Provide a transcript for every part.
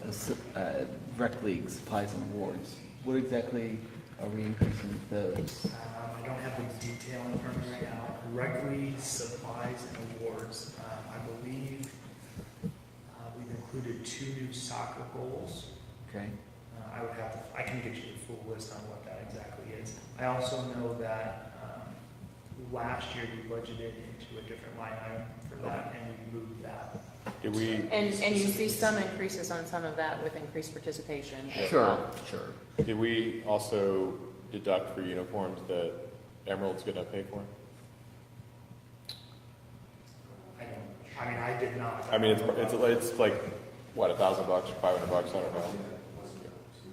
the uh, rec league supplies and awards. What exactly are we increasing those? Um, I don't have the detail in front of me right now. Rec league supplies and awards. Um, I believe uh, we've included two new soccer goals. Okay, Uh, I would have, to- I can get you the full list on what that exactly is. I also know that um, last year we budgeted into a different line item for that, and we moved that. Did we, And, and you see some increases on some of that with increased participation. as Uh, Sure. well. Sure. did we also deduct for uniforms that Emerald's gonna pay for? I don't, I mean, I did not. I mean, it's, it's, it's like, what, a thousand bucks, five hundred bucks, I don't know.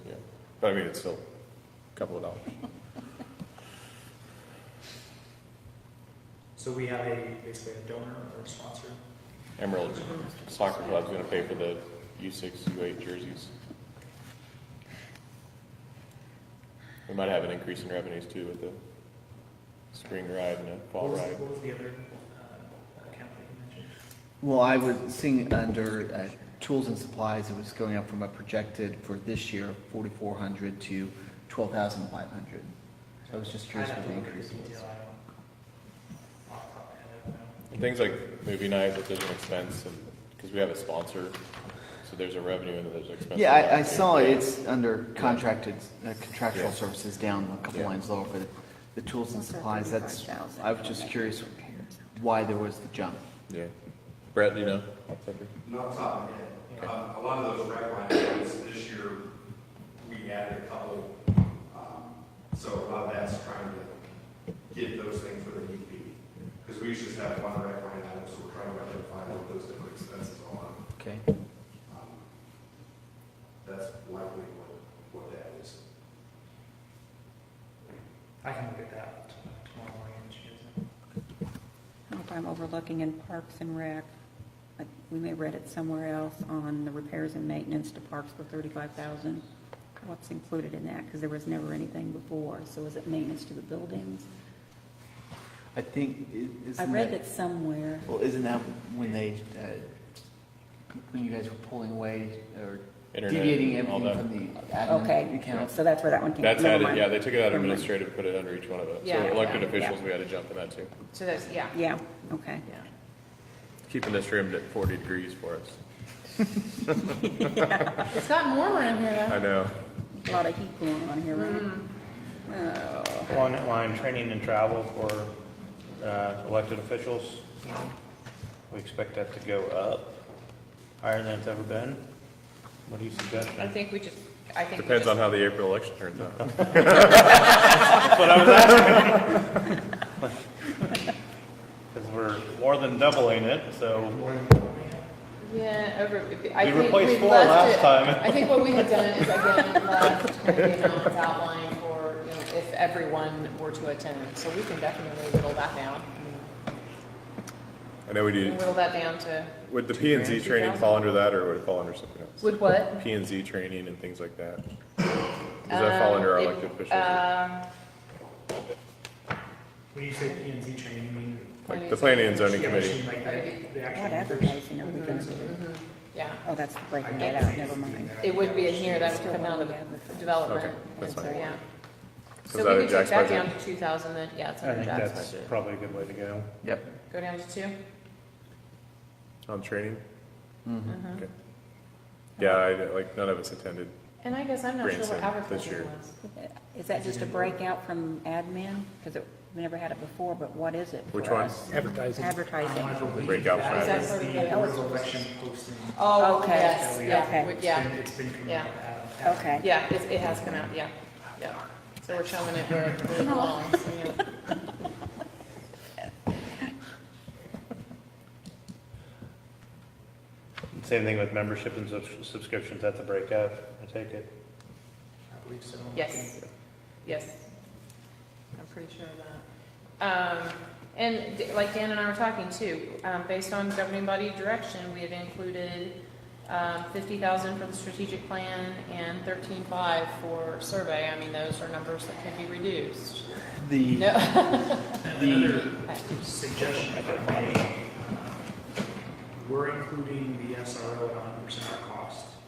Yeah, But I mean, it's still a couple of dollars. So we have a, basically a donor or a sponsor. Emerald's soccer club's gonna pay for the U six, U eight jerseys. We might have an increase in revenues too with the spring ride and the fall What was- ride. What was the other uh, account that you mentioned? well, I was seeing under uh, tools and supplies, it was going up from a projected for this year, 4,400 to 12,500. So I was just curious I'd what have to the look at increase detail, was. I don't- off the top of my head, I don't know. And Things like movie nights, if there's an expense, and, because we have a sponsor, so there's a revenue and then there's an expense. Yeah, I, I Yeah. saw it. it's under contracted, uh, contractual Yeah. services down a couple Yeah. lines lower, but the tools and supplies, that's, I was just curious why there was the jump. Yeah. Brett, do you know? Not off the top of my head. Um, A lot of those rec line items this year, we added a couple. um, So a lot of that's trying to get those things where they need to be. Because we usually just have one rec line item, so we're trying to identify what those different expenses are. Okay. Um, That's likely what, what that is. I can look at that t- tomorrow morning. when she gets in. If I'm overlooking in Parks and Rec, I- we may read it somewhere else on the repairs and maintenance to parks for thirty-five thousand. What's included in that? Because there was never anything before. So is it maintenance to the buildings? I think, i- I isn't read that, it somewhere. well, isn't that when they, uh, when you guys were pulling away or Internet, deviating all everything that. from the admin Okay, accounts? so that's where that one came. That's Never added, mind. yeah, they took it out of Never mind. administrative, put it under each one of us. So Yeah. elected Yeah. officials, we had to jump in that too. So that's, yeah. Yeah, okay. Yeah. Keeping this room at forty degrees for us. It's gotten warmer in here though. I know. A lot of heat going on here, right? Mm-hmm. Oh, Along that line, training and travel for uh, elected officials, we expect that to go up, higher than it's ever been. What do you suggest? I man? think we just, I think. we Depends just- on how the April election turns out. Because we're more than doubling it, so Yeah, over, I We think replaced we four left last it. time. I think what we had done is again, left kind of the amounts outlined for, you know, if everyone were to attend. So we can definitely whittle that down. I know we We do, can Whittle that down to, would the P and Z training fall under that or would it fall under something else? would what? P and Z training and things like that. Does that fall under our Um, elected it- officials? Um, When you say P and Z training, you mean? Like the planning and zoning Yeah, committee. machine like that, the That actual numbers? advertising, are we gonna do? mm-hmm, yeah. Oh, that's I the breaking don't that think out, never we do mind. that. It would be in here, that would come out of the development, Okay, and that's so, fine. yeah. Is So that we in could take Jack's that budget? down to two thousand then, yeah, it's I under think Jack's that's budget. probably a good way to go. Yep. Go down to two? Mhm. On training? Mhm. Mm-hmm. Okay. Yeah, I, like, none of us attended. And I guess I'm not sure what Grandson this advertising year. was. Is that just a breakout from admin? Because we never had it before, but what is it? for Which one? us? Advertising. Advertising. I believe Break out that Friday. is Is the that sort of board like- election posting. Oh, Okay. yes, Yeah, yeah, okay. we- It's yeah, been- It's been coming Yeah. out. of that. Okay. yeah, it, it has come out, yeah, yeah. So we're showing it where it where it belongs, yeah. Same thing with membership and subs- subscriptions, that's a breakout, I take it. I believe so. Yes, yes. I'm pretty sure of that. Um, and d- like Dan and I were talking too, um, based on governing body direction, we had included, um, fifty thousand for the strategic plan and thirteen-five for survey. I mean, those are numbers that could be reduced. The. No, The, suggestion, if I may, we're including the SRO at 100% of our